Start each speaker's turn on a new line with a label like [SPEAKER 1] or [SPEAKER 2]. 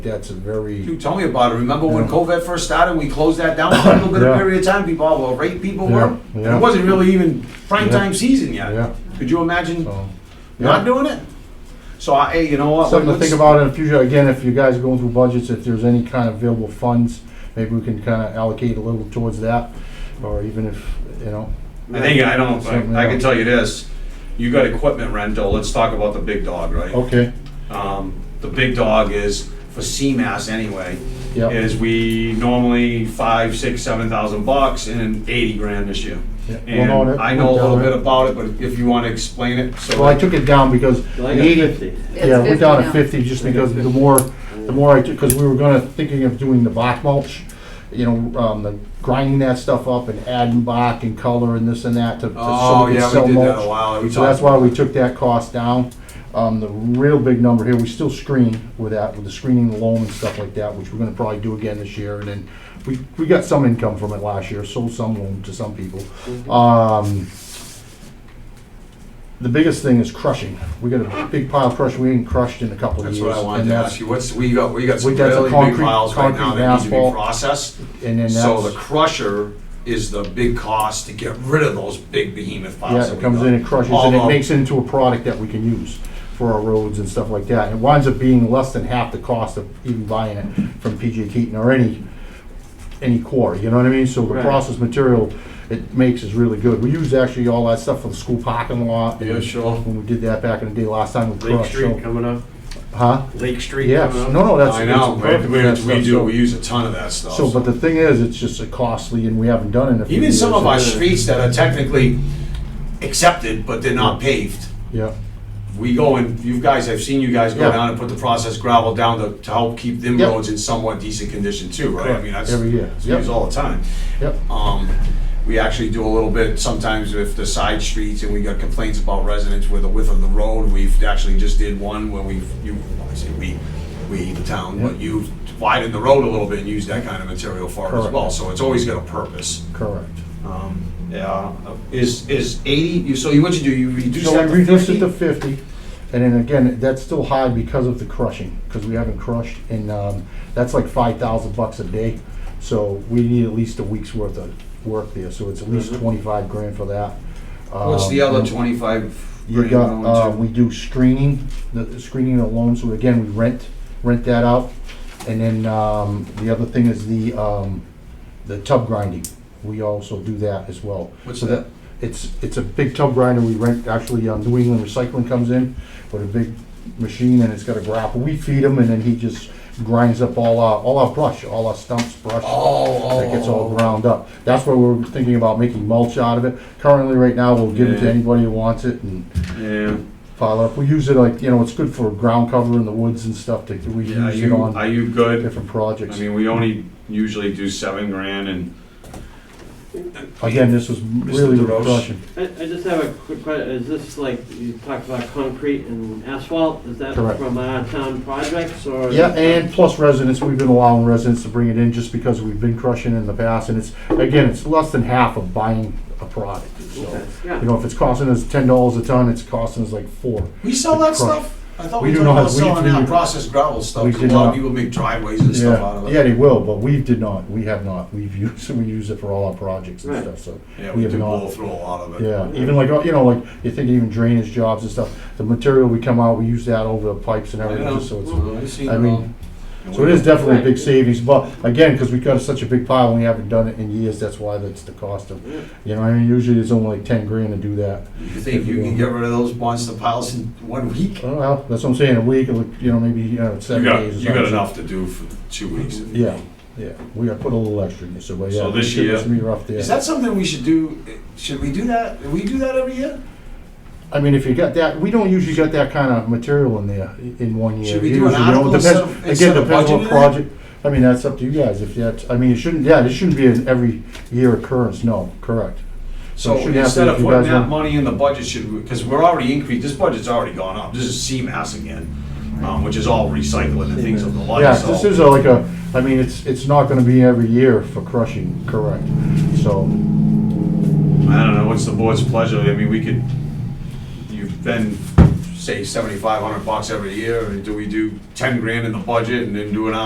[SPEAKER 1] That's a very,
[SPEAKER 2] You tell me about it. Remember when COVID first started, we closed that down for a little bit
[SPEAKER 1] Yeah.
[SPEAKER 2] of period of time. People, oh, well, rate people
[SPEAKER 1] Yeah,
[SPEAKER 2] were. And
[SPEAKER 1] yeah.
[SPEAKER 2] it wasn't really even prime
[SPEAKER 1] Yeah.
[SPEAKER 2] time season yet.
[SPEAKER 1] yeah,
[SPEAKER 2] Could you imagine
[SPEAKER 1] so.
[SPEAKER 2] not
[SPEAKER 1] Yeah,
[SPEAKER 2] doing it? So, I, hey, you know what?
[SPEAKER 1] something to
[SPEAKER 2] let's-
[SPEAKER 1] think about in the future. Again, if you guys are going through budgets, if there's any kind of available funds, maybe we can kind of allocate a little towards that, or even if, you know.
[SPEAKER 2] I think I don't.
[SPEAKER 1] Something
[SPEAKER 2] I, I can
[SPEAKER 1] else.
[SPEAKER 2] tell you this. You got equipment rental. Let's talk about the big dog, right?
[SPEAKER 1] Okay,
[SPEAKER 2] Um, the big dog is for CMAS anyway.
[SPEAKER 1] yeah,
[SPEAKER 2] Is we normally five, six, seven thousand bucks and eighty grand this year.
[SPEAKER 1] yeah. Well, no, that
[SPEAKER 2] And I know a
[SPEAKER 1] went
[SPEAKER 2] little
[SPEAKER 1] down,
[SPEAKER 2] bit
[SPEAKER 1] right?
[SPEAKER 2] about it, but if you want to explain it, so.
[SPEAKER 1] Well, I took it down because the
[SPEAKER 3] Like a
[SPEAKER 1] eighty,
[SPEAKER 3] fifty.
[SPEAKER 4] It's
[SPEAKER 1] yeah, we're
[SPEAKER 4] 50
[SPEAKER 1] down to
[SPEAKER 4] now.
[SPEAKER 1] fifty, just because the more, the more I took, because we were gonna, thinking of doing the black mulch, you know, um, the grinding that stuff up and adding bark and color and this and that to, to so
[SPEAKER 2] Oh,
[SPEAKER 1] we could
[SPEAKER 2] yeah,
[SPEAKER 1] sell
[SPEAKER 2] we did that
[SPEAKER 1] mulch.
[SPEAKER 2] a while. We
[SPEAKER 1] So that's
[SPEAKER 2] talked-
[SPEAKER 1] why we took that cost down. Um, the real big number here, we still screen with that, with the screening, the loam and stuff like that, which we're gonna probably do again this year, and then we, we got some income from it last year, sold some loam to some people. Um, the biggest thing is crushing. We got a big pile of crush, we ain't crushed in a couple of
[SPEAKER 2] That's
[SPEAKER 1] years.
[SPEAKER 2] what I wanted
[SPEAKER 1] and
[SPEAKER 2] to
[SPEAKER 1] that's-
[SPEAKER 2] ask you. What's, we got, we got some
[SPEAKER 1] We got some
[SPEAKER 2] really big
[SPEAKER 1] concrete-
[SPEAKER 2] piles right now
[SPEAKER 1] concrete
[SPEAKER 2] that need to be
[SPEAKER 1] asphalt.
[SPEAKER 2] processed.
[SPEAKER 1] And then
[SPEAKER 2] So the
[SPEAKER 1] that's,
[SPEAKER 2] crusher is the big cost to get rid of those big behemoth piles.
[SPEAKER 1] yeah,
[SPEAKER 2] that
[SPEAKER 1] it
[SPEAKER 2] we
[SPEAKER 1] comes
[SPEAKER 2] got.
[SPEAKER 1] in and crushes, and it
[SPEAKER 2] Although-
[SPEAKER 1] makes it into a product that we can use for our roads and stuff like that. It winds up being less than half the cost of even buying it from PJ Keaton or any, any quarry, you know what I mean? So the
[SPEAKER 3] Right.
[SPEAKER 1] processed material it makes is really good. We use actually all that stuff for the school parking lot.
[SPEAKER 2] Yeah, sure.
[SPEAKER 1] When we did that back in the day last time with
[SPEAKER 3] Lake
[SPEAKER 1] crush,
[SPEAKER 3] Street
[SPEAKER 1] so,
[SPEAKER 3] coming up,
[SPEAKER 1] huh?
[SPEAKER 3] Lake Street
[SPEAKER 1] Yes,
[SPEAKER 3] coming up.
[SPEAKER 1] no, no, that's.
[SPEAKER 2] I
[SPEAKER 1] it's
[SPEAKER 2] know,
[SPEAKER 1] perfect for
[SPEAKER 2] we,
[SPEAKER 1] that
[SPEAKER 2] we
[SPEAKER 1] stuff,
[SPEAKER 2] do,
[SPEAKER 1] so-
[SPEAKER 2] we use a ton of that stuff.
[SPEAKER 1] So, but the thing is, it's just a costly, and we haven't done it. in a few
[SPEAKER 2] Even some
[SPEAKER 1] years,
[SPEAKER 2] of our
[SPEAKER 1] so-
[SPEAKER 2] streets that are technically accepted, but they're not paved.
[SPEAKER 1] Yeah,
[SPEAKER 2] We go and, you guys, I've seen you guys go
[SPEAKER 1] Yeah.
[SPEAKER 2] down and put the processed gravel down to, to help keep them
[SPEAKER 1] Yep.
[SPEAKER 2] roads in somewhat decent condition too, right? I mean, that's,
[SPEAKER 1] Every year.
[SPEAKER 2] it's
[SPEAKER 1] Yep.
[SPEAKER 2] used all the time.
[SPEAKER 1] yep,
[SPEAKER 2] Um, we actually do a little bit sometimes with the side streets and we got complaints about residents with the width of the road. We've actually just did one where we've, you, I say we, we, the town, but
[SPEAKER 1] Yeah.
[SPEAKER 2] you widened the road a little bit and used that kind of material for it as
[SPEAKER 1] Correct.
[SPEAKER 2] well. So it's always got a purpose.
[SPEAKER 1] correct.
[SPEAKER 2] Um, yeah, is, is eighty, you, so you, what you do, you reduce
[SPEAKER 1] So
[SPEAKER 2] that
[SPEAKER 1] we
[SPEAKER 2] to
[SPEAKER 1] reduced it
[SPEAKER 2] 50?
[SPEAKER 1] to fifty, and then again, that's still high because of the crushing, because we haven't crushed, and, um, that's like five thousand bucks a day. So we need at least a week's worth of work there, so it's at least
[SPEAKER 3] Mhm.
[SPEAKER 1] twenty-five grand for that.
[SPEAKER 2] What's the
[SPEAKER 1] Um,
[SPEAKER 2] other twenty-five?
[SPEAKER 1] You
[SPEAKER 2] grand
[SPEAKER 1] got,
[SPEAKER 2] going
[SPEAKER 1] uh,
[SPEAKER 2] to?
[SPEAKER 1] we do screening, the screening alone, so again, we rent, rent that out. And then, um, the other thing is the, um, the tub grinding. We also do that as well.
[SPEAKER 2] What's
[SPEAKER 1] So
[SPEAKER 2] that?
[SPEAKER 1] It's, it's a big tub grinder we rent, actually, um, New England Recycling comes in with a big machine and it's got a grapple. We feed him and then he just grinds up all our, all our brush, all our stumps, brush
[SPEAKER 2] Oh, oh,
[SPEAKER 1] that gets all
[SPEAKER 2] oh.
[SPEAKER 1] ground up. That's where we're thinking about making mulch out of it. Currently, right now, we'll give it to
[SPEAKER 2] Yeah.
[SPEAKER 1] anybody who wants it and
[SPEAKER 2] Yeah.
[SPEAKER 1] pile up. We use it like, you know, it's good for ground cover in the woods and stuff to, we
[SPEAKER 2] Yeah, are
[SPEAKER 1] use it
[SPEAKER 2] you,
[SPEAKER 1] on
[SPEAKER 2] are you good?
[SPEAKER 1] different
[SPEAKER 2] I
[SPEAKER 1] projects.
[SPEAKER 2] mean, we only usually do seven grand and.
[SPEAKER 1] Again, this was really
[SPEAKER 2] DeRoche?
[SPEAKER 1] refreshing.
[SPEAKER 3] I, I just have a quick question, is this like, you talked about concrete and asphalt, is that
[SPEAKER 1] Correct.
[SPEAKER 3] from our town projects or? is
[SPEAKER 1] Yeah,
[SPEAKER 3] that-
[SPEAKER 1] and plus residents, we've been allowing residents to bring it in just because we've been crushing in the past and it's, again, it's less than half of buying a product, so.
[SPEAKER 3] Okay, Yeah.
[SPEAKER 1] You know, if it's costing us ten dollars a ton, it's costing us like four.
[SPEAKER 2] We sell that
[SPEAKER 1] Like crush.
[SPEAKER 2] stuff? I thought
[SPEAKER 1] We
[SPEAKER 2] we
[SPEAKER 1] do
[SPEAKER 2] talked
[SPEAKER 1] not.
[SPEAKER 2] about
[SPEAKER 1] We-
[SPEAKER 2] selling that
[SPEAKER 1] we-
[SPEAKER 2] processed gravel stuff,
[SPEAKER 1] we
[SPEAKER 2] 'cause
[SPEAKER 1] did
[SPEAKER 2] a lot
[SPEAKER 1] not.
[SPEAKER 2] of people make driveways and stuff out
[SPEAKER 1] Yeah,
[SPEAKER 2] of
[SPEAKER 1] yeah,
[SPEAKER 2] it.
[SPEAKER 1] they will, but we did not, we have not, we've used, we use it for all our projects and
[SPEAKER 3] Right.
[SPEAKER 1] stuff, so.
[SPEAKER 2] Yeah,
[SPEAKER 1] we
[SPEAKER 2] we
[SPEAKER 1] have
[SPEAKER 2] do
[SPEAKER 1] not.
[SPEAKER 2] blow through a lot of it.
[SPEAKER 1] Yeah, even like, you know, like, you think even drainage jobs and stuff, the material we come out, we use that over the pipes and
[SPEAKER 2] I
[SPEAKER 1] everything,
[SPEAKER 2] know.
[SPEAKER 1] just so it's,
[SPEAKER 2] Well, I've seen
[SPEAKER 1] I
[SPEAKER 2] it
[SPEAKER 1] mean,
[SPEAKER 2] all. And
[SPEAKER 1] so
[SPEAKER 2] we
[SPEAKER 1] it is
[SPEAKER 2] don't-
[SPEAKER 1] definitely a big savings, but again, because we got such a big pile and we haven't done it in years, that's why that's the cost of, you know, I mean, usually it's only like ten grand to do that.
[SPEAKER 2] You think you can get rid of those monster piles in one week?
[SPEAKER 1] Oh, Well, that's what I'm saying, a week, or, you know, maybe, you know,
[SPEAKER 2] You
[SPEAKER 1] seven
[SPEAKER 2] got,
[SPEAKER 1] days or
[SPEAKER 2] you got
[SPEAKER 1] something.
[SPEAKER 2] enough to do for two weeks. if you
[SPEAKER 1] Yeah,
[SPEAKER 2] need.
[SPEAKER 1] yeah, we gotta put a little extra in there, so, but yeah.
[SPEAKER 2] So this
[SPEAKER 1] shit
[SPEAKER 2] year-
[SPEAKER 1] must be rough there.
[SPEAKER 2] Is that something we should do? Should we do that? Do we do that every year?
[SPEAKER 1] I mean, if you got that, we don't usually get that kind of material in there i- in one year.
[SPEAKER 2] Should we do an
[SPEAKER 1] Usually, you know,
[SPEAKER 2] article
[SPEAKER 1] depends-
[SPEAKER 2] instead of- instead
[SPEAKER 1] Again,
[SPEAKER 2] of
[SPEAKER 1] depends
[SPEAKER 2] budgeting it?
[SPEAKER 1] what project, I mean, that's up to you guys, if that's, I mean, it shouldn't, yeah, it shouldn't be an every year occurrence, no, correct.
[SPEAKER 2] So
[SPEAKER 1] It shouldn't happen
[SPEAKER 2] instead
[SPEAKER 1] if
[SPEAKER 2] of
[SPEAKER 1] you
[SPEAKER 2] putting
[SPEAKER 1] guys
[SPEAKER 2] that
[SPEAKER 1] want-
[SPEAKER 2] money in the budget, should, because we're already increased, this budget's already gone up. This is CMAS again, um, which is all recycling and things of the like,
[SPEAKER 1] Yeah,
[SPEAKER 2] so.
[SPEAKER 1] this is a- like a, I mean, it's, it's not gonna be every year for crushing, correct, so,
[SPEAKER 2] I don't know, what's the board's pleasure? I mean, we could, you've been say seventy-five hundred bucks every year, or do we do ten grand in the budget and then do an